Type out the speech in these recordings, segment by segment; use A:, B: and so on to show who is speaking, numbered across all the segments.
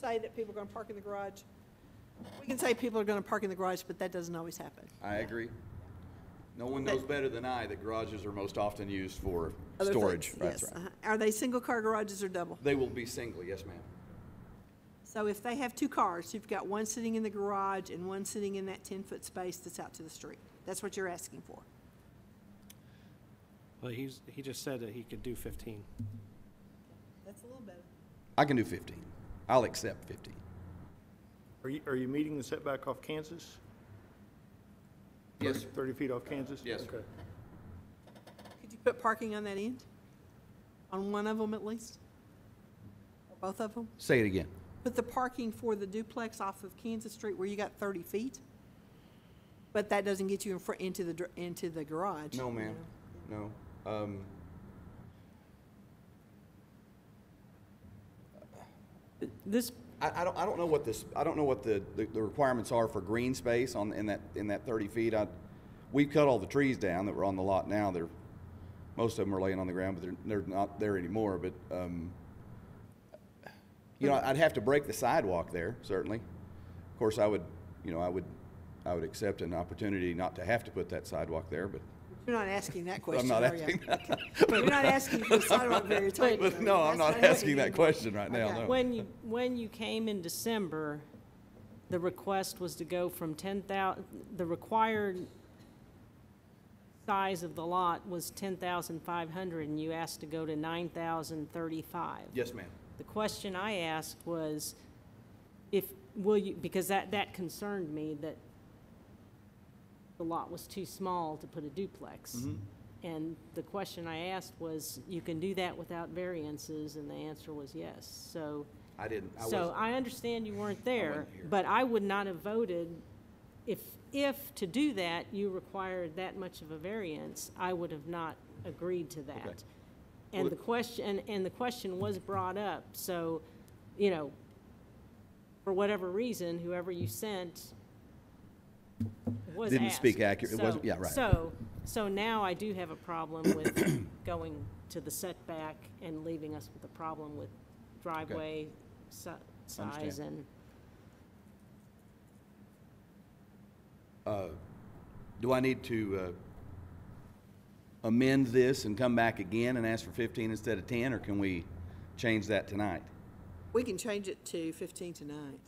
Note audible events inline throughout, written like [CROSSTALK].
A: say that people are going to park in the garage. We can say people are going to park in the garage, but that doesn't always happen.
B: I agree. No one knows better than I that garages are most often used for
A: Other
B: storage.
A: things,
B: That's
A: yes.
B: right.
A: Uh-huh. Are they single-car garages or double?
B: They will be single, yes, ma'am.
A: So if they have two cars, you've got one sitting in the garage and one sitting in that 10-foot space that's out to the street. That's what you're asking for.
C: Well, he's, he just said that he could do 15.
A: That's a little better.
B: I can do 15. I'll accept 15.
D: Are you, are you meeting the setback off Kansas?
B: Yes, sir.
D: 30 feet off Kansas?
B: Yes, sir.
D: Okay.
A: Could you put parking on that end? On one of them at least? Or Both of them?
B: Say it again.
A: Put the parking for the duplex off of Kansas Street where you got 30 feet? But that doesn't get you in front, into the, dr- into the garage.
B: No,
A: you
B: ma'am.
A: know?
B: No. Um,
E: This,
B: I, I don't, I don't know what this, I don't know what the, the the requirements are for green space on, in that, in that 30 feet. I, we've cut all the trees down that were on the lot now. They're, most of them are laying on the ground, but they're, they're not there anymore, but, um, you know, I'd have to break the sidewalk there, certainly. Of course, I would, you know, I would, I would accept an opportunity not to have to put that sidewalk there, but,
A: You're not asking that question,
B: not
A: are you?
B: asking
A: Okay. You're not asking for
B: [LAUGHS]
A: sidewalk variance. are you?
B: but no,
A: That's
B: I'm not
A: what
B: asking
A: you
B: that
A: did.
B: question right
A: Okay.
B: now, no.
E: when you, when you came in December, the request was to go from 10,000, the required size of the lot was 10,500, and you asked to go to 9,035.
B: Yes, ma'am.
E: The question I asked was if, will you, because that, that concerned me that the lot was too small to put a duplex. And the question I asked was, you can do that without variances, and the answer was yes. So,
B: I didn't, I
E: so
B: wasn't,
E: I understand you weren't there,
B: here.
E: but I would not have voted if, if to do that, you required that much of a variance, I would have not agreed to that.
B: Well,
E: And the
B: it-
E: question, and, and the question was brought up, so, you know, for whatever reason, whoever you sent was
B: Didn't speak
E: asked.
B: accurate- it wasn't-
E: So-
B: yeah, right.
E: So, so now I do have a problem with [COUGHS] going to the setback and leaving us with a problem with driveway si- size
B: Understand.
E: and.
B: do I need to, uh, amend this and come back again and ask for fifteen instead of ten, or can we change that tonight?
A: We can change it to 15 tonight,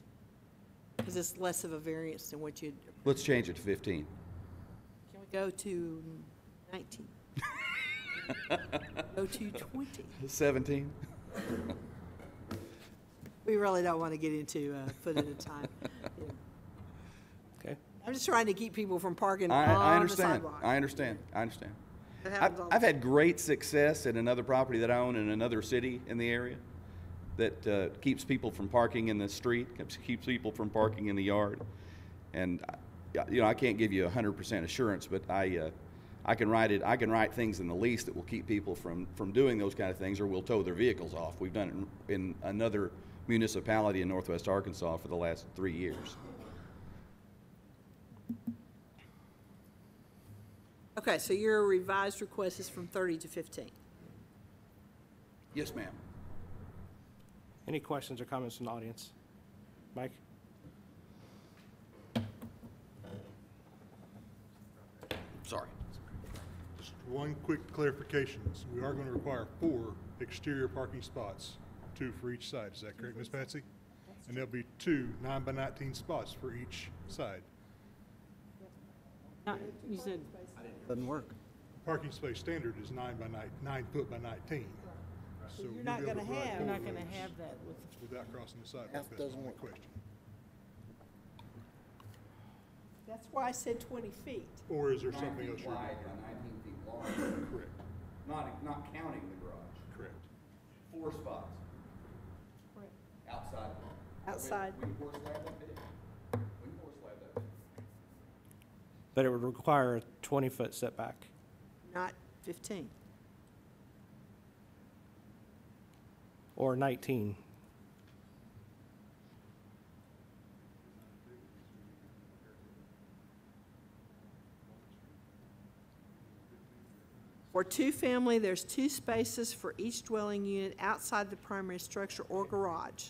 A: because it's less of a variance than what you'd,
B: Let's change it to fifteen.
A: can we go to
B: [LAUGHS]
A: 19? Go to 20?
B: Seventeen?
A: We really don't want to get into a foot
B: [LAUGHS]
A: at a time. Yeah.
C: Okay.
A: I'm just trying to keep people from parking
B: I, I
A: on the
B: understand.
A: sidewalk.
B: I understand. I understand.
A: That happens
B: I've,
A: all the
B: I've had great success at another property that I own in another city in the area that uh, keeps people from parking in the street, keeps, keeps people from parking in the yard. And, I- yeah, you know, I can't give you 100% assurance, but I, uh, I can write it, I can write things in the lease that will keep people from, from doing those kind of things or will tow their vehicles off. We've done it in, in another municipality in northwest Arkansas for the last three years.
A: Okay, so your revised request is from 30 to 15.
B: Yes, ma'am.
C: Any questions or comments from the audience? Mike?
B: Sorry.
F: Just one quick clarification. So We are going to require four exterior parking spots, two for each side. Is that correct, Ms. Patsy? And there'll be two nine by 19 spots for each side.
E: Not, you said,
G: Doesn't work.
F: Parking space standard is nine by nine, nine foot by 19. So
A: You're
F: we'll
A: not
F: be able
A: gonna
F: provide
A: have-
E: I'm
F: four
E: not
F: of
E: gonna
F: those
E: have that with,
F: Without crossing the sidewalk.
G: That
F: That's
G: doesn't
F: my
G: work.
F: question.
A: That's why I said 20 feet.
F: Or is there something else? you're-
B: nineteen feet long,
F: Correct,
B: not, not counting the garage,
F: correct.
B: four spots. Outside.
A: Outside.
B: We can pour slab that big. We can pour slab that big.
C: But it would require a 20-foot setback.
A: Not 15.
C: Or 19.
A: For two-family, there's two spaces for each dwelling unit outside the primary structure or garage.